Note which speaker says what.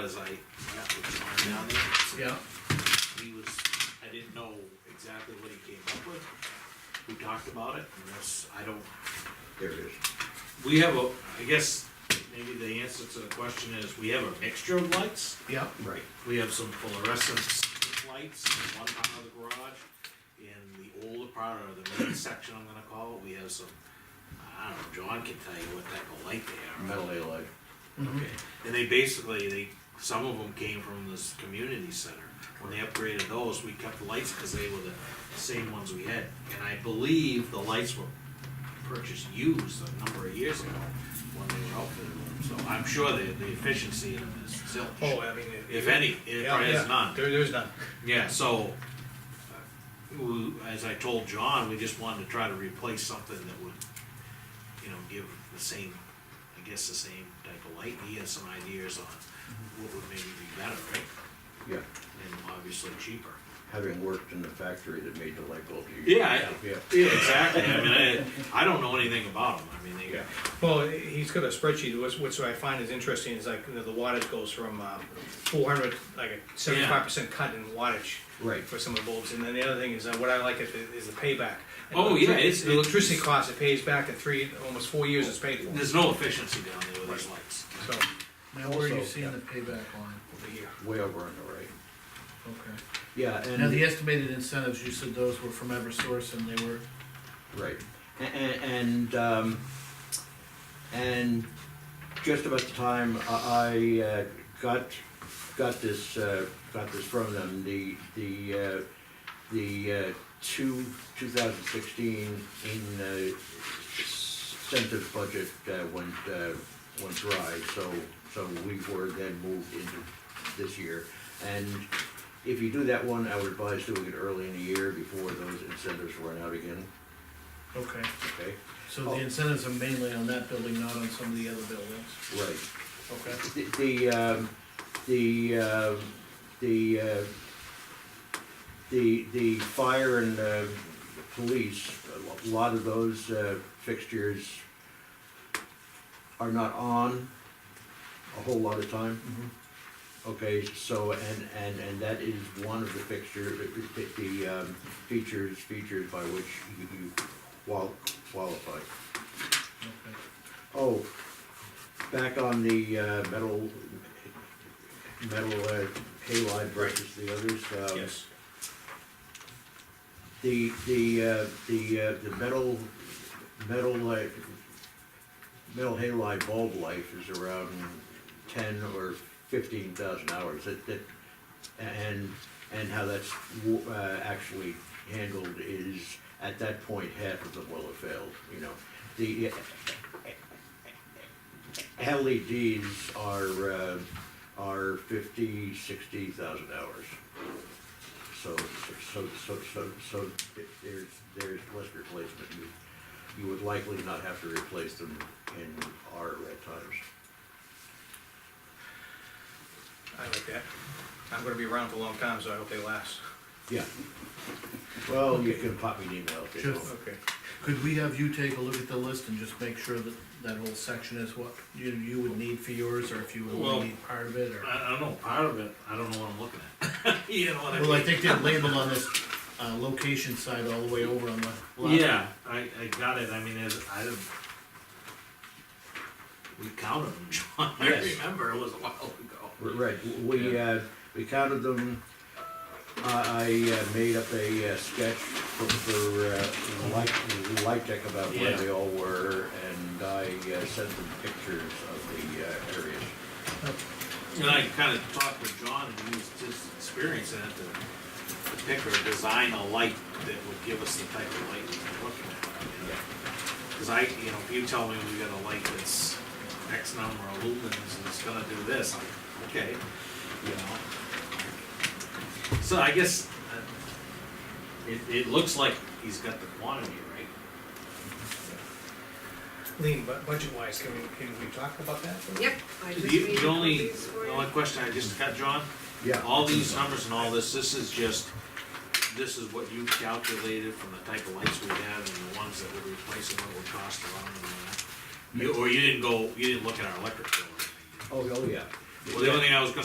Speaker 1: because I, that was on down there. so
Speaker 2: Yeah,
Speaker 1: He was, I didn't know exactly what he came up with, we talked about it, and that's, I don't,
Speaker 3: There it is.
Speaker 1: we have a, I guess, maybe the answer to the question is, we have a mixture of lights.
Speaker 2: yeah,
Speaker 3: Right.
Speaker 1: We have some fluorescence lights in one part of the garage. In the older part, or the main section, I'm gonna call it, we have some, I don't know, John can tell you what type of light they are.
Speaker 4: metal halide.
Speaker 1: Okay, and they basically, they, some of them came from this community center. When they upgraded those, we kept the lights because they were the same ones we had. And I believe the lights were purchased used a number of years ago when they were outfitted with them. So I'm sure the, the efficiency of them is zilch.
Speaker 2: oh, I mean. it-
Speaker 1: If any, it
Speaker 2: Yeah,
Speaker 1: probably
Speaker 2: yeah.
Speaker 1: is none.
Speaker 2: There, there's none.
Speaker 1: Yeah, so, uh, we- as I told John, we just wanted to try to replace something that would, you know, give the same, I guess, the same type of light. He has some ideas on what would maybe be better, right?
Speaker 3: Yeah,
Speaker 1: And obviously cheaper.
Speaker 3: having worked in the factory that made the light bulb. you-
Speaker 1: Yeah, I-
Speaker 3: Yeah.
Speaker 1: Yeah, exactly. I mean, I, I don't know anything about them. I mean,
Speaker 3: Yeah.
Speaker 1: they,
Speaker 2: Well, he's got a spreadsheet, what's, what's I find is interesting is like, you know, the wattage goes from, um, four hundred, like a seventy-five percent cut in wattage.
Speaker 3: Right.
Speaker 2: For some of the bulbs, and then the other thing is, uh, what I like is the- is the payback.
Speaker 1: Oh, yeah, it's-
Speaker 2: The electricity
Speaker 1: it's-
Speaker 2: cost, it pays back in three, almost four years it's paid for,
Speaker 1: there's no efficiency down there with those lights.
Speaker 2: so,
Speaker 5: Now, where are you
Speaker 3: Also,
Speaker 5: seeing
Speaker 3: yeah.
Speaker 5: the payback line?
Speaker 2: over here.
Speaker 3: Way over on the right.
Speaker 5: Okay.
Speaker 3: Yeah,
Speaker 5: Now, the
Speaker 3: and,
Speaker 5: estimated incentives, you said those were from Eversource and they were,
Speaker 3: right. A- a- And, um, and just about the time I, I uh, got, got this, uh, got this from them, the, the, uh, the, uh, two, two thousand sixteen in, uh, incentive budget, uh, went, uh, went dry, so, so we were then moved into this year. And if you do that one, I would advise doing it early in the year before those incentives run out again,
Speaker 5: okay.
Speaker 3: okay?
Speaker 5: So the
Speaker 3: Oh.
Speaker 5: incentives are mainly on that building, not on some of the other buildings?
Speaker 3: Right.
Speaker 5: Okay.
Speaker 3: The, the, um, the, um, the, uh, the, the fire and, uh, police, a lo- lot of those, uh, fixtures are not on a whole lot of time. Okay, so, and, and, and that is one of the fixture, the, the- the, um, features, features by which you, you qual- qualify.
Speaker 5: Okay.
Speaker 3: Oh, back on the uh, metal, metal uh, halide versus the others. um,
Speaker 2: Yes.
Speaker 3: The, the, uh, the, uh, the metal, metal, uh, metal halide bulb life is around ten or fifteen thousand hours. That, that, and, and how that's w- uh, actually handled is, at that point, half of them will have failed, you know. The uh, LEDs are, uh, are fifty, sixty thousand hours. So, so, so, so, so there's, there's less replacement. You, you would likely not have to replace them in our at times.
Speaker 2: I like that. I'm gonna be around for a long time, so I hope they last.
Speaker 3: Yeah. Well, you can pop me an email if you
Speaker 5: Sure.
Speaker 3: want.
Speaker 2: Okay.
Speaker 5: Could we have you take a look at the list and just make sure that that whole section is what you, you would need for yours, or if you would
Speaker 1: Well-
Speaker 5: only need part of it, or?
Speaker 1: I, I don't know, part of it, I don't know what I'm looking at. You know what I mean?
Speaker 5: Well, I think they're labeled on this, uh, location side all the way over on the left.
Speaker 1: Yeah, I, I got it, I mean, as, I didn't. We counted them, John, I
Speaker 3: Yes.
Speaker 1: remember, it was a while ago.
Speaker 3: Right, we, uh, we counted them, I, I uh, made up a uh, sketch for, for, uh, light, light deck about where
Speaker 1: Yeah.
Speaker 3: they all were, and I uh, sent them pictures of the uh, areas.
Speaker 1: And I kinda talked with John, and he was just experiencing it, to to pick or design a light that would give us the type of light we're looking at. you know. Cause I, you know, if you tell me we got a light that's X number of lumens and it's gonna do this, I'm, okay, you know. So I guess, uh, it, it looks like he's got the quantity right.
Speaker 2: Lean, but budget-wise, can we, can we talk about that?
Speaker 6: Yep. I just
Speaker 1: The
Speaker 6: made
Speaker 1: the only,
Speaker 6: copies for
Speaker 1: the
Speaker 6: you.
Speaker 1: only question I just got, John,
Speaker 3: Yeah.
Speaker 1: all these numbers and all this, this is just, this is what you calculated from the type of lights we had and the ones that would replace and what it would cost around and all that. You, or you didn't go, you didn't look at our electric bill or anything?
Speaker 3: Oh, oh, yeah.
Speaker 1: Well, the only thing I was gonna